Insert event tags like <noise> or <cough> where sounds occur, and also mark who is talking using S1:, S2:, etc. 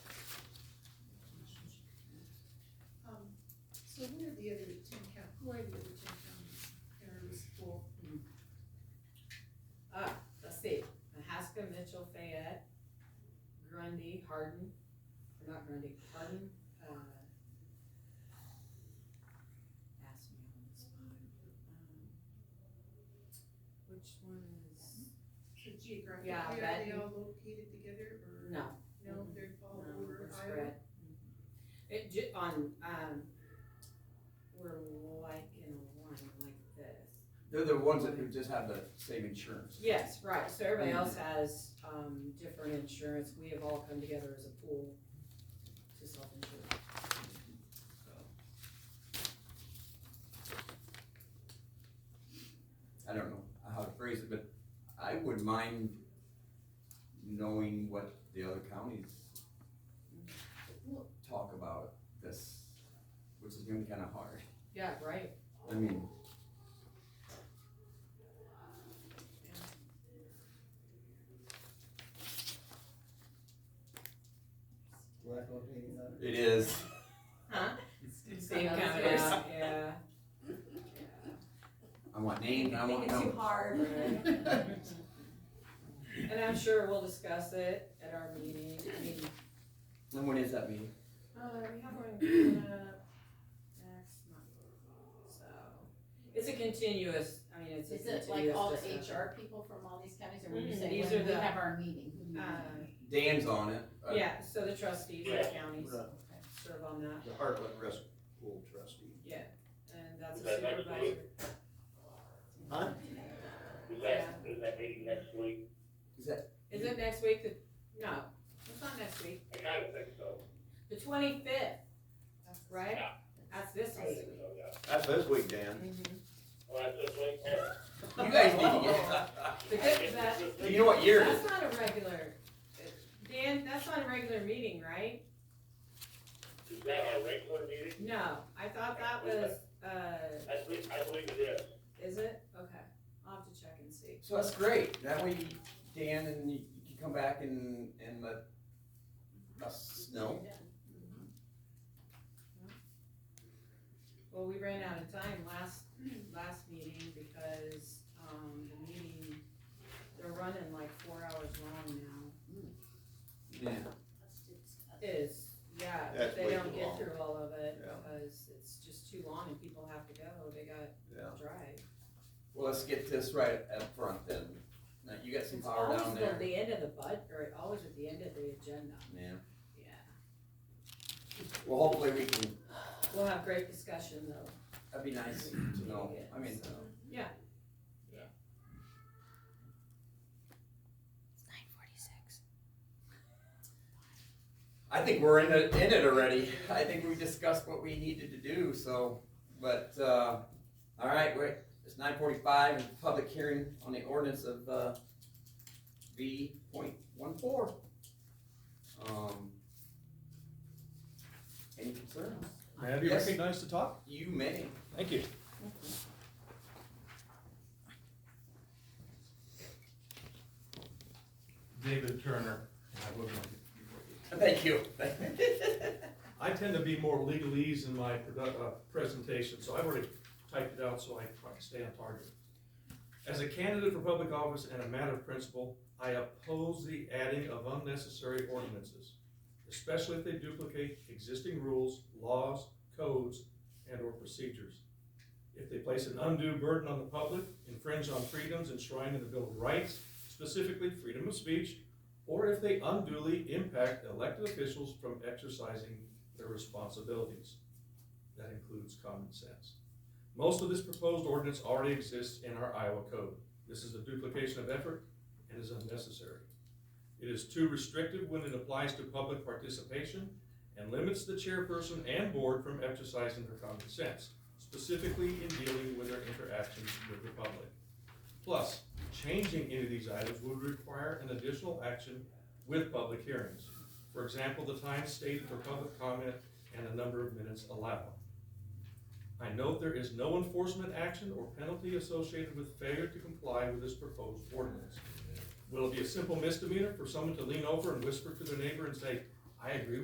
S1: Um,
S2: not Grundy, pardon, uh. Ask me on the spot. Um, Which one is,
S1: So geographically,
S2: Yeah,
S1: are
S2: that-
S1: they all located together or
S2: no,
S1: no, they're all
S2: No,
S1: over
S2: it's
S1: Oh, Iowa?
S2: red. It ju- on, um, we're like in a line like this.
S3: They're the ones that just have the same insurance.
S2: Yes, right, so everybody else has, um, different insurance, we have all come together as a pool to self-insure.
S3: I don't know how to phrase it, but I would mind knowing what the other counties talk about this, which is gonna be kinda hard.
S2: Yeah, right,
S3: I mean,
S4: Black on paint, huh?
S3: it is.
S2: same kind of, yeah, yeah.
S3: I want names, I want
S5: Think it's
S3: numbers.
S5: too
S3: <laughs>
S5: hard.
S2: Right. And I'm sure we'll discuss it at our meeting, I mean,
S3: And when is that meeting?
S2: Uh, we have one coming up next month, so. It's a continuous, I mean, it's <laughs> a
S6: <laughs> Is
S2: continuous
S6: it like all the
S2: discussion.
S6: HR people from all these counties, or when you
S2: Mm,
S6: say,
S2: these
S6: when
S2: are
S6: we
S2: the-
S6: have our meeting, who do you?
S2: Uh,
S3: Dan's on it. uh,
S2: yeah, so the trustees, the counties
S4: Right.
S2: serve on that,
S4: The Heartland Rest Pool trustee.
S2: and that's a
S7: Is that next
S2: supervisor.
S4: Huh?
S7: Is that, is that meeting next week?
S2: Is it next week, the, no, it's not next week,
S7: I kind of think so.
S2: the twenty-fifth, right?
S7: Yeah.
S2: That's this
S7: I
S2: week.
S7: think so, yeah.
S4: That's this week, Dan.
S7: Well, that's just like,
S3: You guys need
S2: <laughs>
S3: to get,
S2: The good, that,
S3: you know what year it is?
S2: that's not a regular, Dan, that's not a regular meeting, right?
S7: is that our regular meeting?
S2: No, I thought that was, uh,
S7: I believe, I believe it is.
S2: is it? Okay, I'll have to check and see.
S3: So that's great. That way, you- Dan and you you can come back and, and let us know.
S2: Well, we ran out of time last, last meeting because, um, the meeting, they're running like four hours long now.
S3: Yeah.
S2: Is, yeah,
S4: That's
S2: but they
S4: way
S2: don't
S4: too
S2: get
S4: long.
S2: through all of it
S4: Yeah.
S2: because it's just too long and people have to go, they got
S4: Yeah.
S2: to drive.
S3: Well, let's get this right up front then. Now, you got some
S2: It's
S3: power
S2: always
S3: down
S2: the,
S3: there.
S2: the end of the bud, or always at the end of the agenda,
S3: Yeah.
S2: yeah.
S3: Well, hopefully we can,
S2: We'll have great discussion though.
S3: that'd be nice to know. I mean,
S2: So, Yeah,
S3: I think we're in it, in it already. I think we discussed what we needed to do, so, but, uh, all right, wait. It's nine forty-five and public hearing on the ordinance of, uh, V point one four. Um, any concerns?
S8: May I be
S3: Yes.
S8: recognized to talk?
S3: You may. <laughs>
S8: Thank you.
S9: David Turner, and I live on-
S3: Thank you. <laughs>
S9: I tend to be more legalese in my produ- uh, presentation, so I've already typed it out so I I can stay on target. As a candidate for public office and a matter of principle, I oppose the adding of unnecessary ordinances, especially if they duplicate existing rules, laws, codes, and/or procedures. If they place an undue burden on the public, infringe on freedoms enshrined in the Bill of Rights, specifically freedom of speech, or if they unduly impact elected officials from exercising their responsibilities. That includes common sense. Most of this proposed ordinance already exists in our Iowa code. This is a duplication of effort and is unnecessary. It is too restrictive when it applies to public participation and limits the chairperson and board from exercising their common sense, specifically in dealing with their interactions with the public. Plus, changing any of these items would require an additional action with public hearings. For example, the time stated for public comment and the number of minutes allowed. I note there is no enforcement action or penalty associated with failure to comply with this proposed ordinance. Will it be a simple misdemeanor for someone to lean over and whisper to their neighbor and say, I agree with